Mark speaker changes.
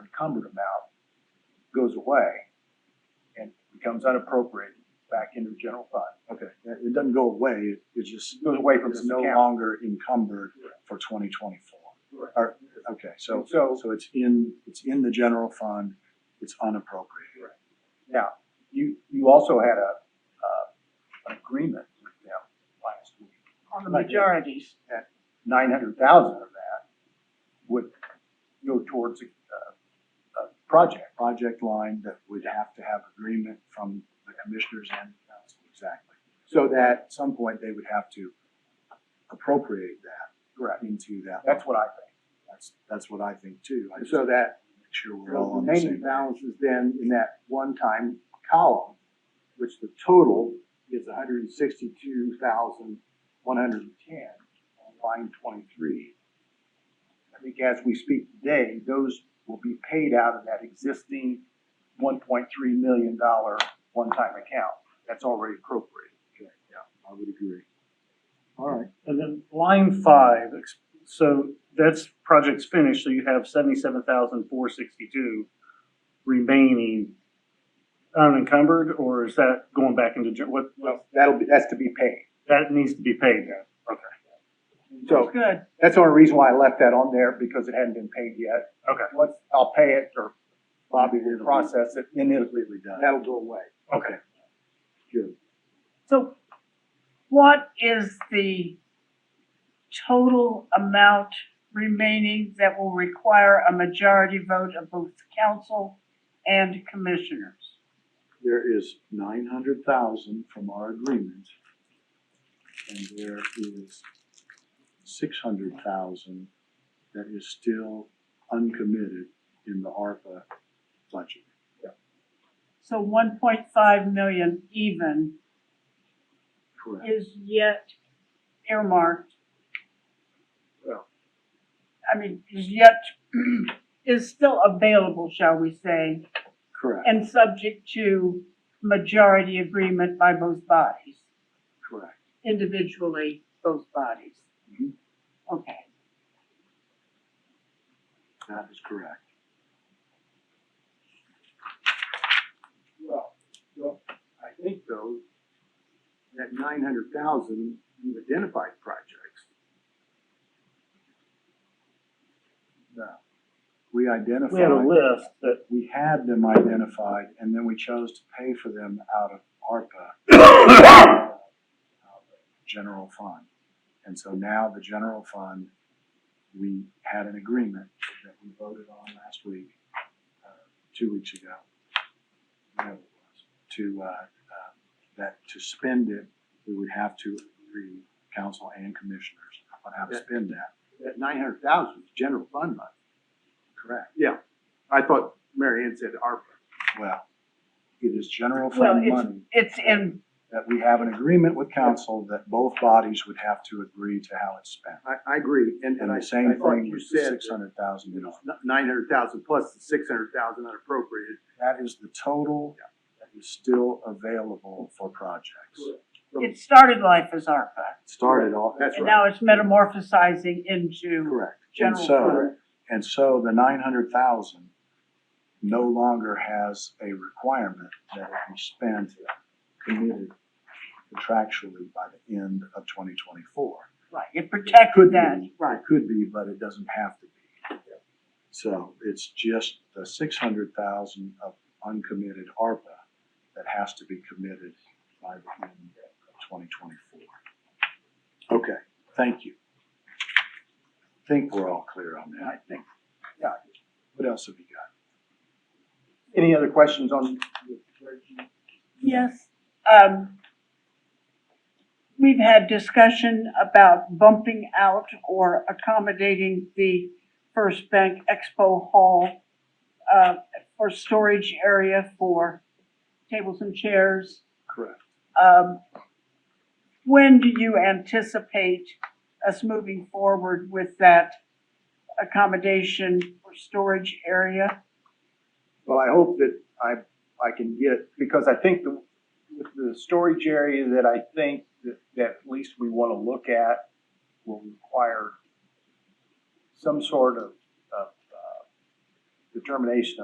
Speaker 1: encumbered amount goes away and becomes unappropriated back into the general fund.
Speaker 2: Okay, it it doesn't go away, it- it's just,
Speaker 1: It Goes away from
Speaker 2: it's
Speaker 1: this
Speaker 2: no
Speaker 1: account.
Speaker 2: longer encumbered for twenty twenty-four.
Speaker 1: Right.
Speaker 2: Or, okay, so,
Speaker 1: So-
Speaker 2: so it's in, it's in the general fund, it's unappropriated.
Speaker 1: Now, you, you also had a, uh, an agreement with them last week.
Speaker 3: on the
Speaker 1: Right.
Speaker 3: majorities.
Speaker 1: Nine hundred thousand of that would go towards a, uh, a project.
Speaker 2: Project line that would have to have agreement from the commissioners and the council, exactly. So
Speaker 1: So
Speaker 2: that at some point, they would have to appropriate that. Correct. Into that.
Speaker 1: that's what I think.
Speaker 2: That's, that's what I think too. I just
Speaker 4: So
Speaker 2: make
Speaker 4: that
Speaker 2: sure
Speaker 4: the
Speaker 2: we're all on the
Speaker 4: remaining
Speaker 2: same.
Speaker 4: balance is then in that one-time column, which the total is hundred and sixty-two thousand, one hundred and ten on line twenty-three.
Speaker 1: I think as we speak today, those will be paid out of that existing one point three million dollar one-time account. That's already appropriated.
Speaker 2: I would agree.
Speaker 4: All right.
Speaker 5: And then line five, ex- so that's project's finished, so you have seventy-seven thousand four sixty-two remaining unencumbered, or is that going back into, gen- what, what-
Speaker 4: That'll be, that's to be paid.
Speaker 5: that needs to be paid then?
Speaker 4: So
Speaker 3: That's good.
Speaker 4: that's the only reason why I left that on there, because it hadn't been paid yet.
Speaker 5: Okay,
Speaker 4: Once I'll pay it or
Speaker 2: Bobby,
Speaker 4: Bobby
Speaker 2: we're
Speaker 4: will process it,
Speaker 2: Then it'll be done.
Speaker 4: that'll go away.
Speaker 5: okay.
Speaker 3: So what is the total amount remaining that will require a majority vote of both council and commissioners?
Speaker 2: There is nine hundred thousand from our agreement. And there is six hundred thousand that is still uncommitted in the ARPA budget.
Speaker 3: So one point five million even
Speaker 2: Correct.
Speaker 3: is yet earmarked.
Speaker 1: Well.
Speaker 3: I mean, is yet, is still available, shall we say,
Speaker 2: Correct,
Speaker 3: and subject to majority agreement by both bodies,
Speaker 2: correct.
Speaker 3: individually, both bodies.
Speaker 2: Mhm.
Speaker 3: Okay,
Speaker 2: That is correct.
Speaker 4: Well, well, I think though, that nine hundred thousand, you've identified projects.
Speaker 2: We identified.
Speaker 5: We had a list that
Speaker 2: we had them identified and then we chose to pay for them out of ARPA. uh, General fund. And so now the general fund, we had an agreement that we voted on last week, uh, two weeks ago. whatever it was, To, uh, uh, that to spend it, we would have to agree, council and commissioners, on how to spend that.
Speaker 4: That nine hundred thousand is general fund money.
Speaker 2: Correct.
Speaker 4: Yeah, I thought Mary Ann said ARPA.
Speaker 2: Well, it is general
Speaker 3: well,
Speaker 2: fund
Speaker 3: it's,
Speaker 2: money.
Speaker 3: it's in,
Speaker 2: that we have an agreement with council that both bodies would have to agree to how it's spent.
Speaker 4: I, I agree, and, and
Speaker 2: And
Speaker 4: I, I
Speaker 2: the same
Speaker 4: thought
Speaker 2: thing
Speaker 4: you
Speaker 2: with the
Speaker 4: said
Speaker 2: six hundred thousand dollars.
Speaker 4: nine hundred thousand plus the six hundred thousand unappropriated
Speaker 2: That is the total that is still available for projects.
Speaker 4: Correct.
Speaker 3: it started life as ARPA,
Speaker 2: Started off.
Speaker 4: That's
Speaker 3: and
Speaker 4: right.
Speaker 3: now it's metamorphosizing into
Speaker 2: Correct. And
Speaker 3: general
Speaker 2: so,
Speaker 3: fund.
Speaker 2: and so the nine hundred thousand no longer has a requirement that it be spent committed contractually by the end of twenty twenty-four.
Speaker 3: Right, it
Speaker 2: Could
Speaker 3: protected that,
Speaker 2: be, right, could be, but it doesn't have to be. So it's just the six hundred thousand of uncommitted ARPA that has to be committed by the end of twenty twenty-four. Okay, thank you. Think we're all clear on that. I think. Yeah, what else have you got?
Speaker 1: Any other questions on?
Speaker 3: yes. Um, we've had discussion about bumping out or accommodating the First Bank Expo Hall uh, for storage area for tables and chairs.
Speaker 2: Correct.
Speaker 3: Um, when do you anticipate us moving forward with that accommodation or storage area?
Speaker 1: Well, I hope that I, I can get, because I think the, with the storage area that I think that, that at least we wanna look at will require some sort of, of, uh, determination